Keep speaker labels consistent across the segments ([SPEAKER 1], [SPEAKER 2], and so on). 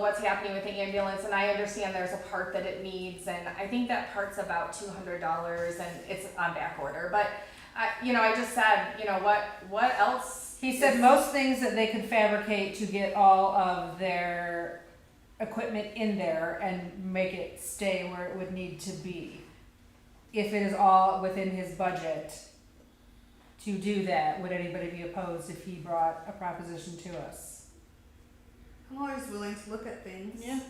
[SPEAKER 1] what's happening with the ambulance, and I understand there's a part that it needs, and I think that part's about two hundred dollars, and it's on back order, but I, you know, I just said, you know, what, what else?
[SPEAKER 2] He said
[SPEAKER 1] is-
[SPEAKER 2] most things that they could fabricate to get all of their equipment in there and make it stay where it would need to be. If it is all within his budget to do that, would anybody be opposed if he brought a proposition to us?
[SPEAKER 3] I'm always willing to look at things.
[SPEAKER 4] Yeah.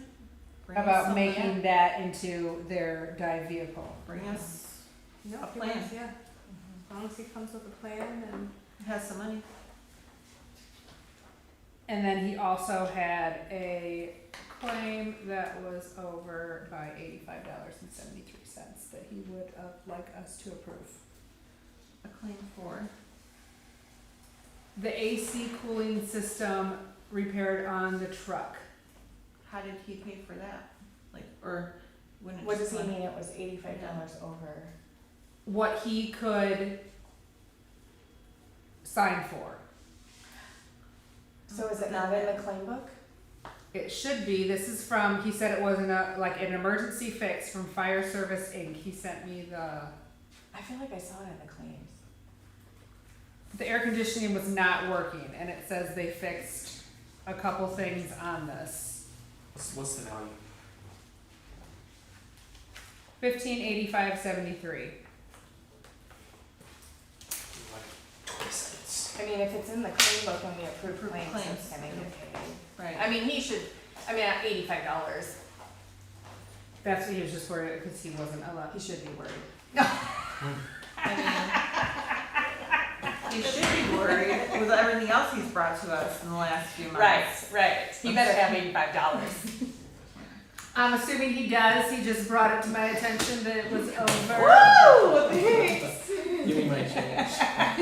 [SPEAKER 4] Bring us
[SPEAKER 2] About
[SPEAKER 4] some
[SPEAKER 2] making
[SPEAKER 4] land.
[SPEAKER 2] that into their dive vehicle.
[SPEAKER 4] Bring us,
[SPEAKER 3] No,
[SPEAKER 4] A
[SPEAKER 3] pretty
[SPEAKER 4] plan.
[SPEAKER 3] much, yeah.
[SPEAKER 1] Mm-hmm.
[SPEAKER 3] As long as he comes with a plan and
[SPEAKER 4] has some money.
[SPEAKER 2] And then he also had a claim that was over by eighty-five dollars and seventy-three cents that he would uh, like us to approve.
[SPEAKER 4] A claim for.
[SPEAKER 2] The AC cooling system repaired on the truck.
[SPEAKER 4] How did he pay for that? Like, or wouldn't it
[SPEAKER 1] What
[SPEAKER 4] just
[SPEAKER 1] does he
[SPEAKER 4] like-
[SPEAKER 1] mean it was eighty-five dollars over?
[SPEAKER 2] What he could sign for.
[SPEAKER 1] So is it not in the claim book?
[SPEAKER 2] It should be, this is from, he said it wasn't a, like an emergency fix from Fire Service Inc. He sent me the,
[SPEAKER 1] I feel like I saw it in the claims.
[SPEAKER 2] the air conditioning was not working and it says they fixed a couple things on this.
[SPEAKER 5] What's, what's the value?
[SPEAKER 2] Fifteen eighty-five seventy-three.
[SPEAKER 5] Like twenty cents.
[SPEAKER 1] I mean, if it's in the claim book and we approve
[SPEAKER 4] Approve
[SPEAKER 1] claims,
[SPEAKER 4] claims,
[SPEAKER 1] it's gonna get paid. I
[SPEAKER 4] Right.
[SPEAKER 1] mean, he should, I mean, at eighty-five dollars,
[SPEAKER 2] That's what he was just worried because he wasn't allowed.
[SPEAKER 1] he should be worried.
[SPEAKER 4] I mean, you should be worried with everything else he's brought to us in the last few months.
[SPEAKER 1] right. He better have eighty-five dollars.
[SPEAKER 2] I'm assuming he does. He just brought it to my attention that it was over.
[SPEAKER 4] Woo! Thanks.
[SPEAKER 5] Give me my change.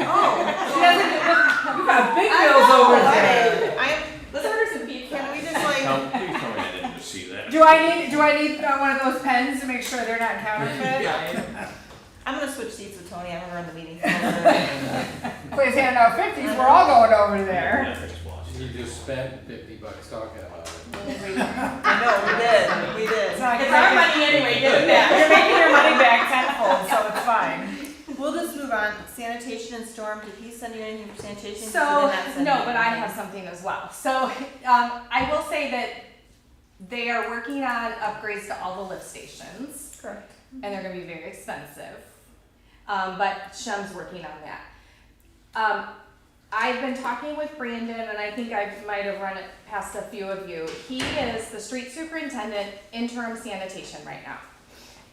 [SPEAKER 4] Oh,
[SPEAKER 2] She doesn't. You got big bills over there.
[SPEAKER 4] I'm.
[SPEAKER 1] Let's order some pizza.
[SPEAKER 4] Can we just like?
[SPEAKER 6] Tell, please tell me I didn't see that.
[SPEAKER 2] Do I need? Do I need uh, one of those pens to make sure they're not counterfeit?
[SPEAKER 4] I'm gonna switch seats with Tony. I'm gonna run the meeting. over.
[SPEAKER 2] Please hand out fifties. We're all going over there.
[SPEAKER 6] Yeah, I just watched
[SPEAKER 7] You
[SPEAKER 6] it.
[SPEAKER 7] just spent fifty bucks talking about it.
[SPEAKER 4] I know we did. We did.
[SPEAKER 2] It's not
[SPEAKER 4] our
[SPEAKER 2] gonna-
[SPEAKER 4] money anyway. Get it back. You're making your money back tenfold, so it's fine. We'll just move on. Sanitation and storm. Did he send you anything for sanitation?
[SPEAKER 1] So, no, but I have something as well. So, um, I will say that they are working on upgrades to all the lift stations.
[SPEAKER 4] Correct.
[SPEAKER 1] and they're going to be very expensive. Um, but Shem's working on that. Um, I've been talking with Brandon, and I think I might have run it past a few of you. He is the street superintendent interim sanitation right now.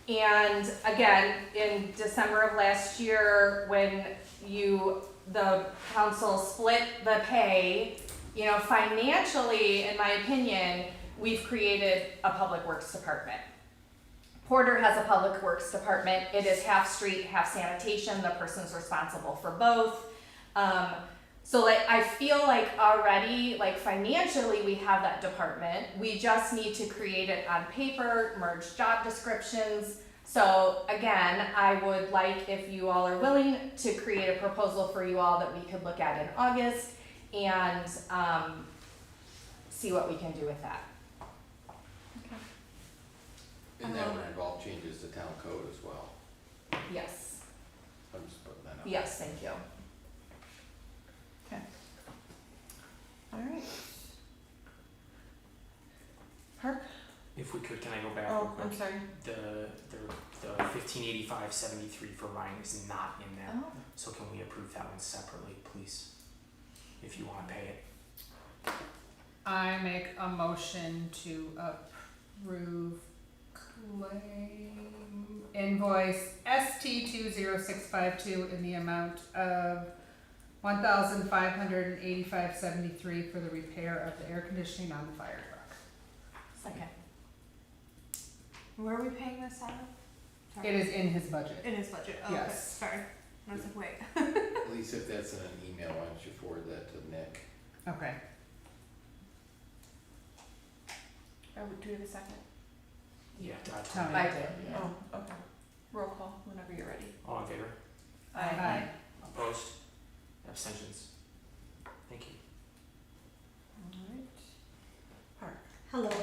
[SPEAKER 1] And again, in December of last year, when you the council split the pay, you know, financially, in my opinion, we've created a public works department. Porter has a public works department. It is half street, half sanitation. The person's responsible for both. Um, so like I feel like already like financially we have that department. We just need to create it on paper, merge job descriptions. So again, I would like if you all are willing to create a proposal for you all that we could look at in August and um, see what we can do with that.
[SPEAKER 7] And that would involve changes to town code as well.
[SPEAKER 1] Yes.
[SPEAKER 7] I'm just putting that out.
[SPEAKER 1] Yes, thank you.
[SPEAKER 4] All right. Park.
[SPEAKER 5] If we could, can I go back real
[SPEAKER 4] Oh,
[SPEAKER 5] quick?
[SPEAKER 4] I'm sorry.
[SPEAKER 5] The the the fifteen eighty five seventy three for Ryan is not in there.
[SPEAKER 1] Oh.
[SPEAKER 5] So can we approve that one separately, please? If you wanna pay it.
[SPEAKER 2] I make a motion to approve claim invoice ST two zero six five two in the amount of one thousand five hundred and eighty-five seventy-three for the repair of the air conditioning on the fire truck.
[SPEAKER 1] Second.
[SPEAKER 3] where are we paying this out? of?
[SPEAKER 2] It is in his budget.
[SPEAKER 3] In his budget. Oh, okay.
[SPEAKER 2] Yes.
[SPEAKER 3] Sorry. I was like, wait.
[SPEAKER 7] Lisa, if that's in an email, why don't you forward that to Nick?
[SPEAKER 2] Okay.
[SPEAKER 4] Oh, do we have a second?
[SPEAKER 5] Yeah, uh,
[SPEAKER 2] Tell me.
[SPEAKER 1] I did.
[SPEAKER 7] Yeah.
[SPEAKER 4] Oh, okay. Roll call whenever you're ready.
[SPEAKER 5] All in favor?
[SPEAKER 2] Aye.
[SPEAKER 5] Opposed? Abstentions? Thank you.
[SPEAKER 4] All right. Park.
[SPEAKER 3] Hello.